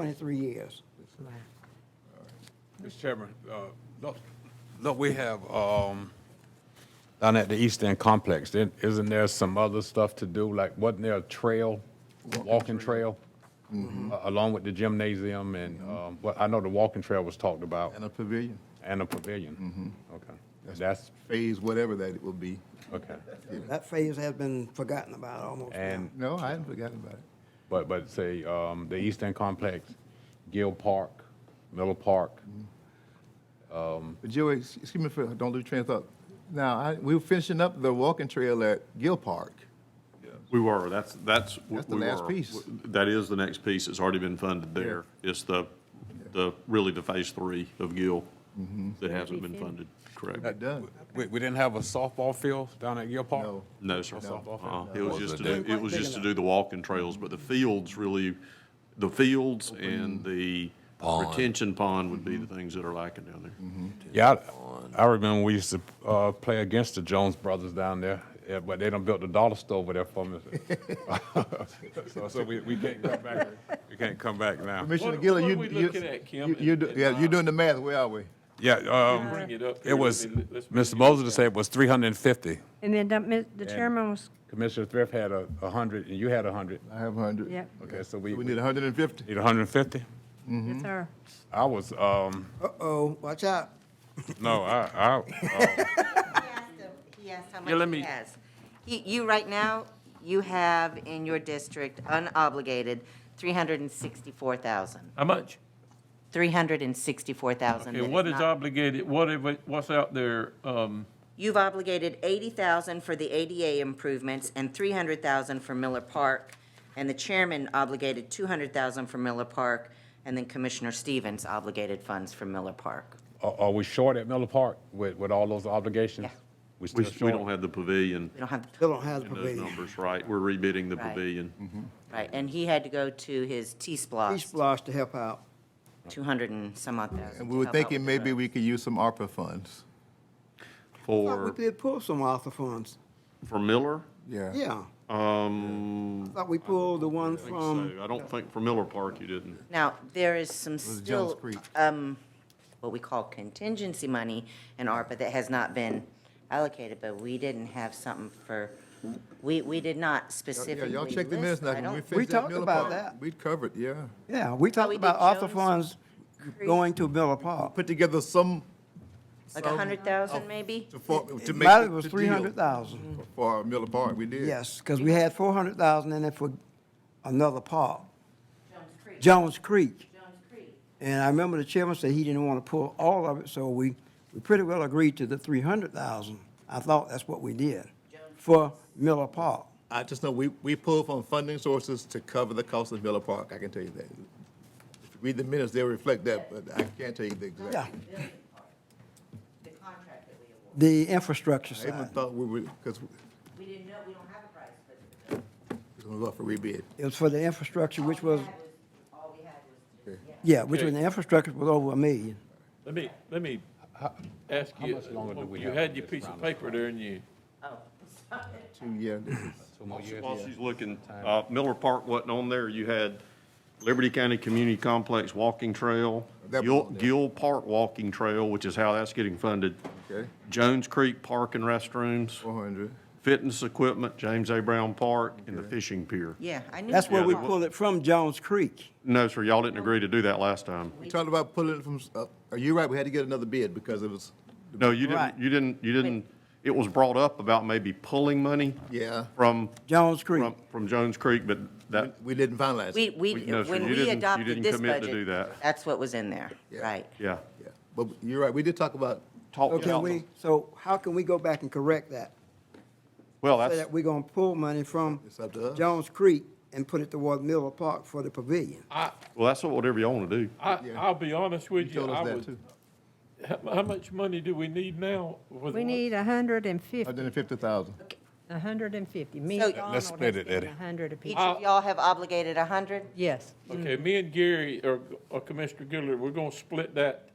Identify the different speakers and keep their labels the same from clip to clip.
Speaker 1: 23 years.
Speaker 2: Mr. Chairman, uh, look, look, we have, um, down at the East End Complex, then isn't there some other stuff to do? Like, wasn't there a trail, walking trail?
Speaker 3: Mm-hmm.
Speaker 2: a- Along with the gymnasium and, um, well, I know the walking trail was talked about
Speaker 3: And a Mm-hmm. pavilion,
Speaker 2: and a pavilion. Okay, that's,
Speaker 3: phase whatever that it will be.
Speaker 2: okay.
Speaker 1: That phase has been forgotten about almost now.
Speaker 2: And,
Speaker 3: No, I hadn't forgotten about it.
Speaker 2: but, but say, um, the East End Complex, Gill Park, Miller Park,
Speaker 3: But Joey, ex- excuse me for, don't lose train of thought. Now, I, we were finishing up the walking trail at Gill Park.
Speaker 4: We were, that's, that's. what
Speaker 3: That's the
Speaker 4: we
Speaker 3: last
Speaker 4: were.
Speaker 3: piece.
Speaker 4: That is the next piece, it's already been funded there. It's the, the, really the phase three of Gill that hasn't been funded, correct?
Speaker 3: Not done.
Speaker 2: we, we didn't have a softball field down at Gill Park?
Speaker 3: No.
Speaker 4: No, sir.
Speaker 2: No.
Speaker 4: Uh-uh. It was
Speaker 2: Was
Speaker 4: just to
Speaker 2: it
Speaker 4: do,
Speaker 1: that-
Speaker 4: it was just to do the walking trails, but the fields really, the fields and the retention pond would be the things that are lacking down there.
Speaker 2: Yeah, I, I remember we used to uh, play against the Jones brothers down there, yeah, but they done built the dollar store over there for me. so, so we, we can't come back. We can't come back now.
Speaker 3: Commissioner
Speaker 5: What-
Speaker 3: Gillen, you.
Speaker 5: what are we
Speaker 3: you-
Speaker 5: looking at, Kim, uh,
Speaker 3: you- you
Speaker 5: and-
Speaker 3: do-
Speaker 5: and
Speaker 3: Yeah, you're
Speaker 5: Bob?
Speaker 3: doing the math, where are we?
Speaker 2: Yeah,
Speaker 5: Bring it
Speaker 2: um,
Speaker 5: up.
Speaker 2: it was
Speaker 5: Let's-
Speaker 2: Mr. Moses said it was 350.
Speaker 6: And then the mi- the chairman was,
Speaker 2: Commissioner Thrift had a, a hundred, and you had a hundred.
Speaker 3: I have hundred.
Speaker 6: Yep.
Speaker 2: Okay, Mhm. so we,
Speaker 3: We
Speaker 2: we
Speaker 3: need hundred and fifty.
Speaker 2: need 150.
Speaker 6: yes, sir.
Speaker 2: I was um,
Speaker 1: Uh-oh, watch out.
Speaker 2: no, I, I uh,
Speaker 7: He asked him- He asked how
Speaker 5: let
Speaker 7: much
Speaker 5: me-
Speaker 7: he has. You, you, right now, you have in your district unobligated 364,000.
Speaker 5: How much?
Speaker 7: 364,000.
Speaker 5: Okay,
Speaker 7: that
Speaker 5: what is
Speaker 7: not-
Speaker 5: obligated, what, if- what's out there, um,
Speaker 7: You've obligated 80,000 for the ADA improvements and 300,000 for Miller Park. And the chairman obligated 200,000 for Miller Park. And then Commissioner Stevens obligated funds for Miller Park.
Speaker 2: uh, are, are we short at Miller Park with, with all those obligations?
Speaker 7: Yeah.
Speaker 2: We still
Speaker 4: We, we
Speaker 2: short?
Speaker 4: don't have the pavilion,
Speaker 7: We don't have, the
Speaker 1: Still don't have the
Speaker 4: those
Speaker 1: pavilion.
Speaker 4: numbers, right? We're rebidding the
Speaker 7: Right.
Speaker 4: pavilion.
Speaker 7: right, and he had to go to his
Speaker 1: Each
Speaker 7: T-Splosh,
Speaker 1: Splash to help out.
Speaker 7: 200 and some odd thousand.
Speaker 3: And
Speaker 7: to
Speaker 3: we were
Speaker 7: help out
Speaker 3: thinking
Speaker 7: with the
Speaker 3: maybe
Speaker 7: road.
Speaker 3: we could use some ARPA funds.
Speaker 1: Thought
Speaker 4: For,
Speaker 1: we did pull some ARPA funds.
Speaker 4: for Miller?
Speaker 3: Yeah.
Speaker 1: Yeah,
Speaker 4: Um,
Speaker 1: thought we pulled the one
Speaker 4: I think so.
Speaker 1: from,
Speaker 4: I don't think for Miller Park you didn't.
Speaker 7: Now, there is some
Speaker 3: was Jones
Speaker 7: still,
Speaker 3: Creek.
Speaker 7: um, what we call contingency money in ARPA that has not been allocated, but we didn't have something for, we, we did not
Speaker 3: Yeah,
Speaker 7: specifically
Speaker 3: y'all check the minutes
Speaker 7: list.
Speaker 3: now. When
Speaker 7: I
Speaker 3: we
Speaker 7: don't,
Speaker 3: finished that
Speaker 1: talked
Speaker 3: Miller
Speaker 1: about
Speaker 3: Park,
Speaker 1: that.
Speaker 3: We covered, yeah.
Speaker 1: yeah, we talked
Speaker 7: we did
Speaker 1: about ARPA
Speaker 7: Jones
Speaker 1: funds going to Miller Park.
Speaker 3: Put together some.
Speaker 7: like a
Speaker 3: some-
Speaker 7: hundred
Speaker 3: Oh.
Speaker 7: thousand maybe?
Speaker 3: To, for, to make.
Speaker 1: It might- it
Speaker 3: the-
Speaker 1: was
Speaker 3: the deal
Speaker 1: 300,000,
Speaker 3: For Miller Park, we did.
Speaker 1: yes, because we had 400,000 in it for another park, Jones Creek. And I remember the chairman said he didn't want to pull all of it, so we, we pretty well agreed to the 300,000. I thought that's what we did for Miller Park.
Speaker 3: I just know we, we pull from funding sources to cover the cost of Miller Park, I can tell you that. If you Read the minutes, they'll reflect that, but I can't tell you the
Speaker 1: Yeah,
Speaker 3: exact.
Speaker 7: The contract that we award.
Speaker 1: the infrastructure
Speaker 3: I even
Speaker 1: side.
Speaker 3: thought we were, because
Speaker 7: We didn't know, we don't have a price, but
Speaker 3: it's gonna go up for rebid.
Speaker 1: It was for the infrastructure, which was,
Speaker 7: all we had was
Speaker 1: yeah, which was, the infrastructure was over a million.
Speaker 5: let me, let me ask
Speaker 2: how
Speaker 5: you,
Speaker 2: much longer do we
Speaker 5: you
Speaker 2: have
Speaker 5: had
Speaker 2: on
Speaker 5: your
Speaker 2: this
Speaker 5: piece of
Speaker 2: round?
Speaker 5: paper there and you,
Speaker 3: Two, yeah, this is-
Speaker 2: Two more years.
Speaker 4: While she's looking, uh, Miller Park wasn't on there. You had Liberty County Community Complex Walking Trail,
Speaker 3: That was
Speaker 4: Gill,
Speaker 3: on there.
Speaker 4: Gill Park Walking Trail, which is how that's getting funded.
Speaker 3: Okay.
Speaker 4: Jones Creek Park and Restrooms,
Speaker 3: four hundred.
Speaker 4: Fitness Equipment, James A. Brown Park, and the Fishing Pier.
Speaker 7: Yeah, I knew.
Speaker 1: That's where we
Speaker 4: Yeah, the-
Speaker 1: pulled it from Jones Creek.
Speaker 4: No, sir, y'all didn't agree to do that last time.
Speaker 3: We talked about pulling it from, s- uh, are you right? We had to get another bid because it was,
Speaker 4: No, you
Speaker 1: Right.
Speaker 4: didn't, you didn't, you didn't, it was brought up about maybe pulling money
Speaker 3: yeah,
Speaker 4: from,
Speaker 1: Jones Creek.
Speaker 4: from, from Jones Creek, but that,
Speaker 3: we didn't finalize. it.
Speaker 7: We, we,
Speaker 4: We- no, sir,
Speaker 7: when
Speaker 4: you
Speaker 7: we
Speaker 4: didn't- you
Speaker 7: adopted
Speaker 4: didn't
Speaker 7: this
Speaker 4: commit to do
Speaker 7: budget,
Speaker 4: that.
Speaker 7: that's what was in there,
Speaker 3: Yeah.
Speaker 7: right?
Speaker 4: yeah.
Speaker 3: Yeah, But you're right, we did talk about,
Speaker 4: Talk
Speaker 1: So can
Speaker 4: about-
Speaker 1: we, so how can we go back and correct that?
Speaker 4: Well,
Speaker 1: So
Speaker 4: that's.
Speaker 1: that we're gonna pull money from
Speaker 3: It's up to us.
Speaker 1: Jones Creek and put it toward Miller Park for the pavilion?
Speaker 5: I,
Speaker 4: Well, that's whatever y'all want to do.
Speaker 5: I,
Speaker 3: Yeah.
Speaker 5: I'll be honest
Speaker 3: you
Speaker 5: with you,
Speaker 3: told us
Speaker 5: I
Speaker 3: that too.
Speaker 5: would, how, how much money do we need now? for the
Speaker 6: We
Speaker 5: one-
Speaker 6: need a hundred and fifty,
Speaker 3: Hundred and fifty thousand.
Speaker 6: a hundred and fifty. Me
Speaker 7: So-
Speaker 6: and Donald
Speaker 2: Let's
Speaker 6: has
Speaker 2: split it,
Speaker 6: given
Speaker 2: Eddie.
Speaker 6: A hundred
Speaker 7: Each
Speaker 6: apiece.
Speaker 7: of y'all have obligated a hundred?
Speaker 6: Yes.
Speaker 5: Okay, me and Gary, or, or Commissioner Goodler, we're gonna split that,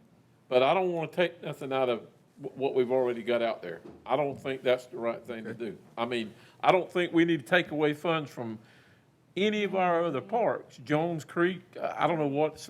Speaker 5: but I don't wanna take nothing out of wh- what we've already got out there. I don't think that's the right thing to do. I mean, I don't think we need to take away funds from any of our other parks, Jones Creek, I I don't know what's